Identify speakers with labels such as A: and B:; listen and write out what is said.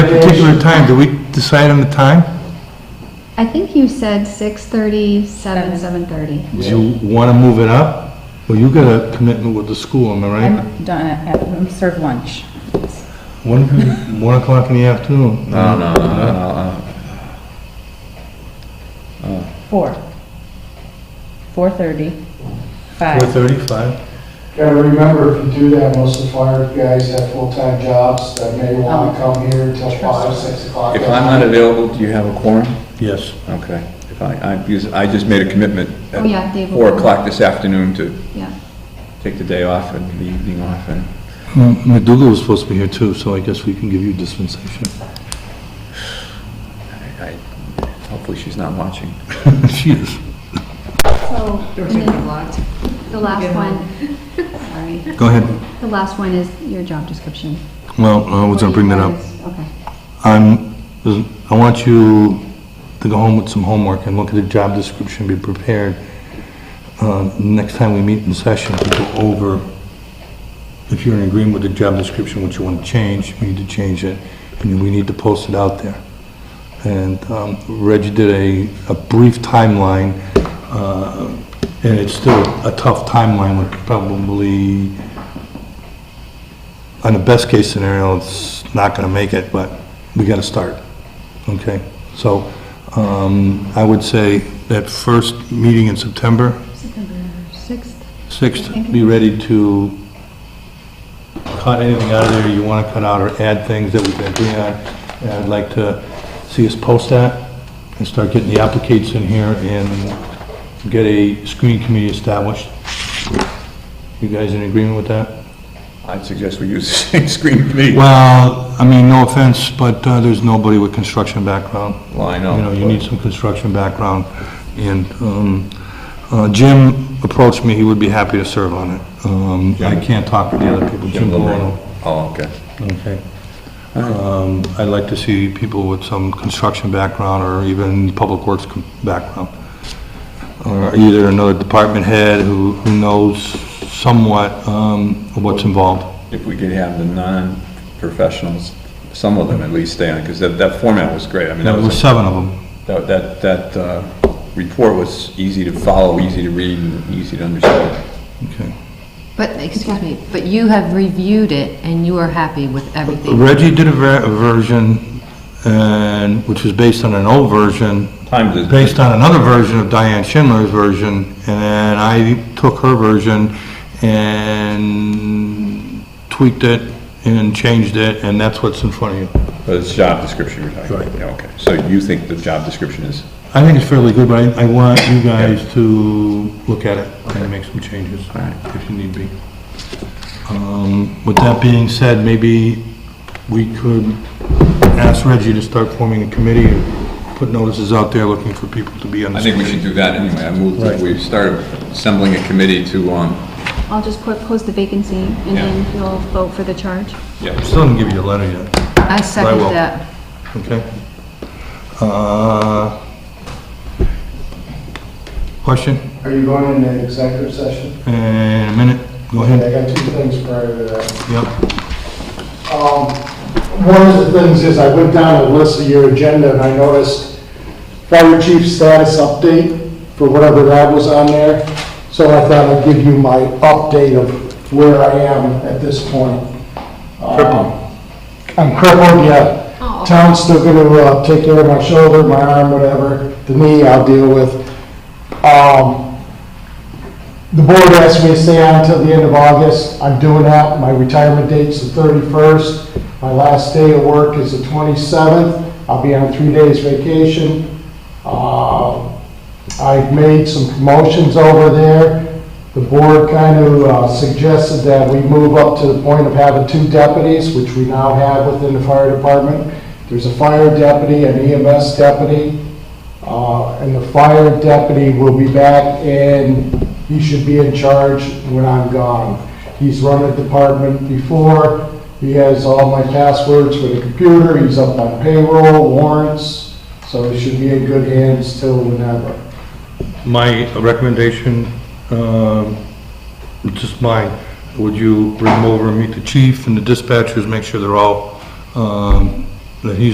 A: that particular time, do we decide on the time?
B: I think you said 6:30, 7, 7:30.
A: Do you want to move it up? Well, you got a commitment with the school, am I right?
C: I'm done, at- I'm served lunch.
A: One, one o'clock in the afternoon?
D: No, no, no, no, no,
C: Four. Four-thirty,
A: Four
C: five.
A: thirty-five?
E: Gotta remember, if you do that, most of the fire guys have full-time jobs that may wanna come here until five, six o'clock.
D: If I'm not available, do you have a quorum?
A: Yes.
D: Okay. If I, I, because I just made a commitment
B: Oh, yeah,
D: at
B: Dave will
D: four
B: come.
D: o'clock this afternoon to
B: Yeah.
D: take the day off and the evening off and.
A: McDougal was supposed to be here too, so I guess we can give you dispensation.
D: I- Hopefully she's not watching.
A: She is.
B: So, and then the last one, sorry,
A: Go ahead.
B: the last one is your job description.
A: Well, I was gonna bring that up.
B: Okay.
A: I'm, I want you to go home with some homework and look at the job description, be prepared, uh, next time we meet in session, to go over, if you're in agreement with the job description, what you want to change, we need to change it, and we need to post it out there. And um, Reggie did a, a brief timeline, uh, and it's still a tough timeline, with probably on the best case scenario, it's not gonna make it, but we gotta start, okay? So, um, I would say that first meeting in September,
B: September 6th.
A: 6th, be ready to cut anything out of there you wanna cut out or add things that we can agree on. And I'd like to see us post that and start getting the applicants in here and get a screening committee established. You guys in agreement with that?
D: I'd suggest we use the same screen committee.
A: Well, I mean, no offense, but uh, there's nobody with construction background.
D: Well, I know.
A: You know, you need some construction background. And um, uh, Jim approached me, he would be happy to serve on it. Um, I can't talk for the other people. Jim Colonna.
D: Oh, okay.
A: Okay. Um, I'd like to see people with some construction background or even public works com- background. Or either another department head who who knows somewhat um, of what's involved.
D: If we could have the non-professionals, some of them at least stay on, because that, that format was great. I mean, that
A: There were
D: was,
A: seven of them.
D: that, that, that uh, report was easy to follow, easy to read, and easy to understand.
A: Okay.
F: But, excuse me, but you have reviewed it and you are happy with everything.
A: Reggie did a ver- a version, and, which was based on an old version,
D: Time to.
A: based on another version of Diane Schindler's version, and then I took her version and tweaked it and changed it, and that's what's in front of you.
D: But it's job description you're talking about.
A: Right.
D: Yeah, okay. So you think the job description is,
A: I think it's fairly good, but I, I want you guys to look at it and make some changes, if you need be. Um, with that being said, maybe we could ask Reggie to start forming a committee and put notices out there looking for people to be on the.
D: I think we should do that anyway. I moved, that we started assembling a committee to, um,
B: I'll just put, post the vacancy, and
D: Yeah.
B: then you'll vote for the charge.
D: yeah.
A: Still didn't give you a letter yet,
F: I
A: I
F: second
A: will.
F: that.
A: okay? Uh, question,
E: Are you going in an executive session?
A: and a minute, go
E: I
A: ahead,
E: got two things prior to that.
A: yep,
E: Um, One of the things is I went down and listed your agenda and I noticed fire chief status update for whatever that was on there. So I thought I'd give you my update of where I am at this point.
A: Crippled.
E: Um, I'm crippled, yeah. Town's still gonna uh, take care of my shoulder, my arm, whatever. The knee I'll deal with. Um, the board asked me to stay on until the end of August. I'm doing that. My retirement date's the 31st. My last day of work is the 27th. I'll be on three days vacation. Uh, I've made some promotions over there. The board kind of uh, suggested that we move up to the point of having two deputies, which we now have within the fire department. There's a fire deputy, an EMS deputy, uh, and the fire deputy will be back and he should be in charge when I'm gone. He's run a department before, he has all my passwords for the computer, he's up on payroll, warrants, so he should be in good hands till whenever.
A: My recommendation, um, just mine, would you bring them over and meet the chief and the dispatchers, make sure they're all um, that he's